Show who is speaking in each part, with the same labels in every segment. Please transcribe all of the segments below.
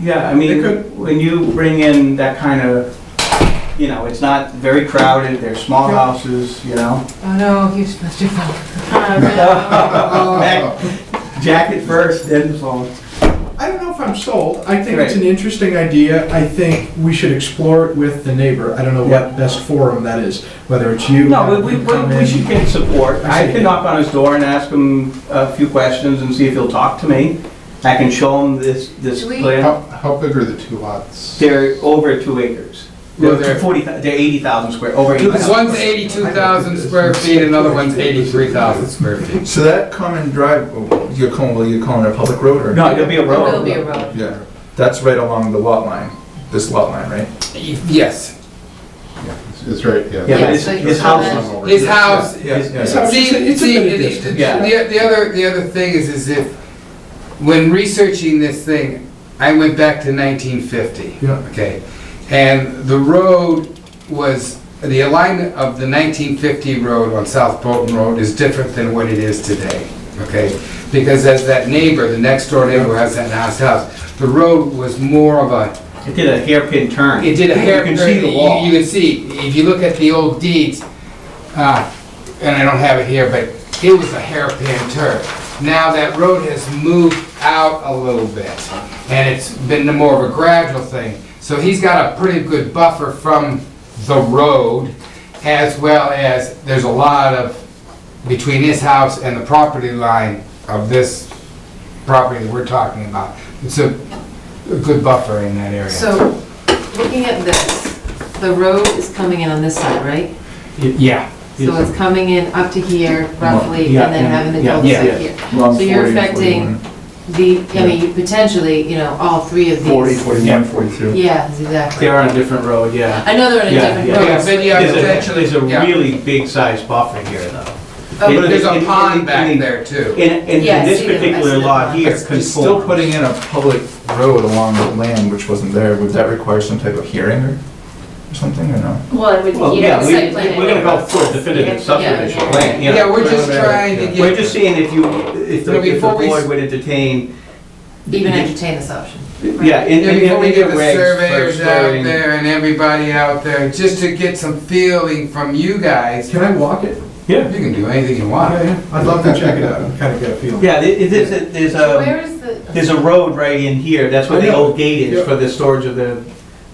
Speaker 1: Yeah, I
Speaker 2: They
Speaker 1: mean,
Speaker 2: could-
Speaker 1: when you bring in that kind of, you know, it's not very crowded, they're small
Speaker 2: Yeah.
Speaker 1: houses, you know?
Speaker 3: Oh no, he's Mr. Falcon.
Speaker 2: Uh,
Speaker 1: Back- Jacket first, then the phone.
Speaker 2: I don't know if I'm sold. I think it's
Speaker 1: Right.
Speaker 2: an interesting idea. I think we should explore it with the neighbor. I don't know
Speaker 1: Yeah.
Speaker 2: what best forum that is, whether it's you.
Speaker 1: No, we- we,
Speaker 2: you come
Speaker 1: we we
Speaker 2: in.
Speaker 1: should get support.
Speaker 2: I see.
Speaker 1: I can knock on his door and ask him a few questions and see if he'll talk to me. I can show him this, this
Speaker 3: Do we-
Speaker 1: plan.
Speaker 4: How, how big are the two lots?
Speaker 1: They're over two acres.
Speaker 5: Well,
Speaker 1: They're
Speaker 5: they're-
Speaker 1: forty, they're eighty thousand square, over eighty thousand.
Speaker 5: One's eighty-two thousand square feet, another one's eighty-three thousand square feet.
Speaker 6: So that common drive, oh, you're calling, well, you're calling it a public road or?
Speaker 1: No, it'll be a
Speaker 3: There will
Speaker 1: road.
Speaker 3: be a road.
Speaker 6: Yeah, that's right along the lot line, this lot line, right?
Speaker 5: Yes,
Speaker 4: It's right, yeah.
Speaker 1: Yeah,
Speaker 3: Yeah,
Speaker 1: but his,
Speaker 3: so you
Speaker 1: his
Speaker 3: should
Speaker 1: house,
Speaker 3: have-
Speaker 4: Over
Speaker 5: his
Speaker 4: here.
Speaker 5: house,
Speaker 6: Yeah, yeah,
Speaker 2: It's
Speaker 6: yeah.
Speaker 2: a-
Speaker 5: See,
Speaker 2: it's a
Speaker 5: see,
Speaker 2: good
Speaker 5: the-
Speaker 2: distance.
Speaker 1: Yeah.
Speaker 5: The, the other, the other thing is, is if, when researching this thing, I went back to nineteen fifty.
Speaker 2: Yeah.
Speaker 5: Okay, and the road was, the alignment of the nineteen fifty road on South Bolton Road is different than what it is today, okay? Because as that neighbor, the next door neighbor who has that nice house, the road was more of a,
Speaker 1: it did a hairpin turn.
Speaker 5: it did a hair.
Speaker 1: You can see the wall.
Speaker 5: You can see, if you look at the old deeds, uh, and I don't have it here, but it was a hairpin turn. Now that road has moved out a little bit, and it's been more of a gradual thing. So he's got a pretty good buffer from the road, as well as, there's a lot of, between his house and the property line of this property that we're talking about. It's a a good buffer in that area.
Speaker 3: So, looking at this, the road is coming in on this side, right?
Speaker 5: Yeah.
Speaker 3: So it's coming in up to here roughly,
Speaker 1: Yeah,
Speaker 3: and then
Speaker 1: yeah,
Speaker 3: having the
Speaker 1: yeah,
Speaker 3: cul-de-sac
Speaker 1: yeah.
Speaker 3: here.
Speaker 6: Along
Speaker 3: So you're
Speaker 6: 40,
Speaker 3: affecting the, I mean, potentially, you know, all three of
Speaker 6: 41. Forty,
Speaker 3: these.
Speaker 6: forty-one, forty-two.
Speaker 3: Yeah, exactly.
Speaker 1: They are on a different road, yeah.
Speaker 3: I know they're in
Speaker 1: Yeah,
Speaker 3: a
Speaker 1: yeah.
Speaker 3: different road.
Speaker 5: then you have
Speaker 1: There's a,
Speaker 5: potentially,
Speaker 1: there's a
Speaker 5: yeah.
Speaker 1: really big sized buffer here though.
Speaker 3: Okay.
Speaker 1: It-
Speaker 5: there's a
Speaker 1: it-
Speaker 5: pond
Speaker 1: it-
Speaker 5: back
Speaker 1: it-
Speaker 5: there too.
Speaker 1: And, and
Speaker 3: Yeah, I
Speaker 1: this
Speaker 3: see them. I
Speaker 1: particular
Speaker 3: see them.
Speaker 1: lot here
Speaker 6: You're still
Speaker 1: conforms.
Speaker 6: putting in a public road along the land which wasn't there, would that require some type of hearing or or something, or no?
Speaker 7: Well, it would,
Speaker 1: Well,
Speaker 7: you'd
Speaker 1: yeah,
Speaker 7: have a
Speaker 1: we,
Speaker 7: site plan.
Speaker 1: we're gonna go for a definitive subdivision plan, you
Speaker 5: Yeah,
Speaker 1: know.
Speaker 5: we're just trying to
Speaker 1: We're
Speaker 5: get,
Speaker 1: just saying if you, if
Speaker 5: No,
Speaker 1: the, if the
Speaker 5: before we s-
Speaker 1: board were to detain.
Speaker 3: Even entertain this option.
Speaker 1: Yeah, in,
Speaker 5: Yeah,
Speaker 1: in,
Speaker 5: before we
Speaker 1: in
Speaker 5: get
Speaker 1: the
Speaker 5: the
Speaker 1: regs for
Speaker 5: surveyors out
Speaker 1: storing.
Speaker 5: there and everybody out there, just to get some feeling from you guys. You
Speaker 2: Can I walk it?
Speaker 5: can do anything you
Speaker 2: Yeah,
Speaker 5: want.
Speaker 2: yeah. I'd love to check it out and kind of get a feeling.
Speaker 1: Yeah, it, it, there's, a- there's a,
Speaker 3: Where is the?
Speaker 1: there's a road right in here, that's where
Speaker 2: I
Speaker 1: the
Speaker 2: know.
Speaker 1: old gate
Speaker 2: Yeah.
Speaker 1: is for the storage of the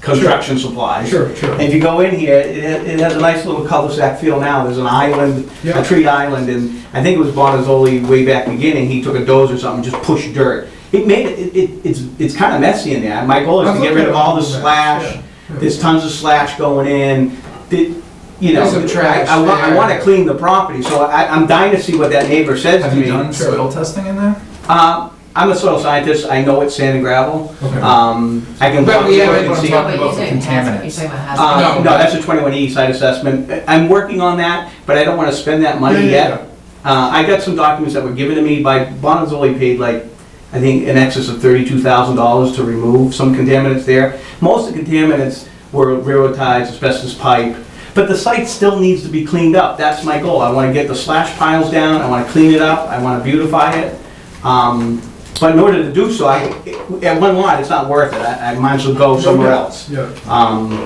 Speaker 1: construction supplies.
Speaker 2: Sure, sure.
Speaker 1: If you go in here, it, it has a nice little cul-de-sac feel now, there's an island,
Speaker 2: Yeah.
Speaker 1: a tree island, and I think it was Bonazzoli way back beginning, he took a dozer or something, just pushed dirt. It made, it, it, it's, it's kinda messy in there, my goal is to get rid of all the slash, there's tons of slash going in, the, you know.
Speaker 5: There's some trash
Speaker 1: I- I want, I
Speaker 5: there.
Speaker 1: wanna clean the property, so I, I'm dying to see what that neighbor says to
Speaker 6: Have
Speaker 1: me.
Speaker 6: you done soil testing in there?
Speaker 1: Uh, I'm a soil scientist, I know it's sand and gravel,
Speaker 6: Okay.
Speaker 1: um, I can.
Speaker 5: But
Speaker 1: walk
Speaker 5: we
Speaker 1: through it
Speaker 5: haven't-
Speaker 1: and see-
Speaker 3: Wait, you're
Speaker 6: about
Speaker 3: saying hazard, you're
Speaker 6: contaminants.
Speaker 3: talking about hazard.
Speaker 1: uh,
Speaker 5: No.
Speaker 1: No, that's a 21E site assessment. I- I'm working on that, but I don't want to spend that
Speaker 2: Yeah,
Speaker 1: money
Speaker 2: yeah,
Speaker 1: yet. Uh, I got some documents that were given to me by, Bonazzoli paid like, I think, in excess of $32,000 to remove some contaminants there. Most of the contaminants were railroad ties, asbestos pipe, but the site still needs to be cleaned up. That's my goal. I want to get the slash piles down, I want to clean it up, I want to beautify it. Um, But in order to do so, I, at one lot, it's not worth it. I I might as well go somewhere else.
Speaker 2: Yeah.
Speaker 1: Um,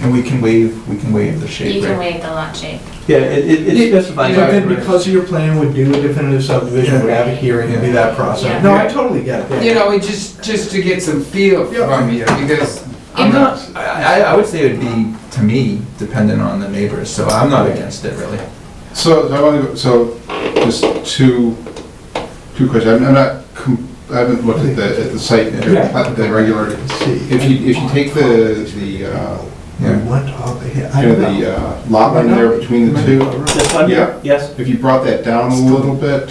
Speaker 6: And we can waive, we can waive the
Speaker 7: You
Speaker 6: shape,
Speaker 7: can
Speaker 6: right?
Speaker 7: waive the lot shape.
Speaker 1: Yeah, it, it- it
Speaker 2: But
Speaker 1: specifies.
Speaker 5: Yeah,
Speaker 1: our
Speaker 2: then
Speaker 1: perimeter.
Speaker 2: because of your plan, would do a definitive subdivision, would have a hearing, would be that
Speaker 7: Yeah.
Speaker 2: process. No, I totally get it.
Speaker 5: You know, it just, just to get some feel
Speaker 2: Yeah.
Speaker 5: from you, because
Speaker 6: I'm not, I, I- I would say it'd be, to me, dependent on the neighbors, so I'm not against it, really.
Speaker 4: So, I want to, so, just two, two questions, I'm- I'm not, com- I haven't looked at the, at the site, at the the regular, if you, if you take the, the, uh,
Speaker 2: We
Speaker 6: Yeah.
Speaker 2: went up here. I
Speaker 4: you know,
Speaker 2: don't know.
Speaker 4: the uh, lot line there between the two,
Speaker 1: This one?
Speaker 4: Yeah.
Speaker 1: Yes,
Speaker 4: if you brought that down a little bit,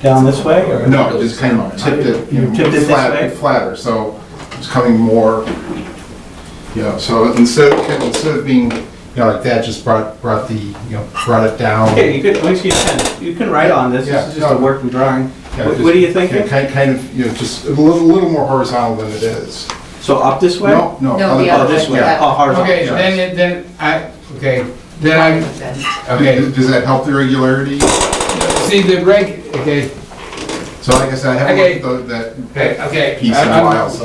Speaker 1: down this way, or?
Speaker 4: no, just kind of tipped it, you
Speaker 1: You tipped it
Speaker 4: know,
Speaker 1: this
Speaker 4: flat-
Speaker 1: way?
Speaker 4: flatter, so it's coming more, you know, so instead, of- instead of being, you know, like that, just brought, brought the, you know, brought it down.
Speaker 1: Yeah, you could, once you can, you can write on this, this is just a working drawing.
Speaker 4: Yeah,
Speaker 1: What
Speaker 4: just-
Speaker 1: what are you
Speaker 4: Yeah,
Speaker 1: thinking?
Speaker 4: Kind, kind of, you know, just a little, little more horizontal than it is.
Speaker 1: So up this way?
Speaker 4: No, no.
Speaker 3: No,
Speaker 4: other-
Speaker 3: the
Speaker 1: Oh,
Speaker 3: other
Speaker 1: this way,
Speaker 3: way.
Speaker 1: oh, horizontal.
Speaker 5: Okay, then, it- then, I, okay, then I'm,
Speaker 4: Okay,
Speaker 5: okay,
Speaker 4: does- does that help the regularity?
Speaker 5: see the reg, okay,
Speaker 4: So like I said, I
Speaker 5: Okay.
Speaker 4: haven't looked at the- that
Speaker 5: okay, okay.
Speaker 4: piece in
Speaker 5: I-
Speaker 4: a
Speaker 5: I'm-
Speaker 4: while, so.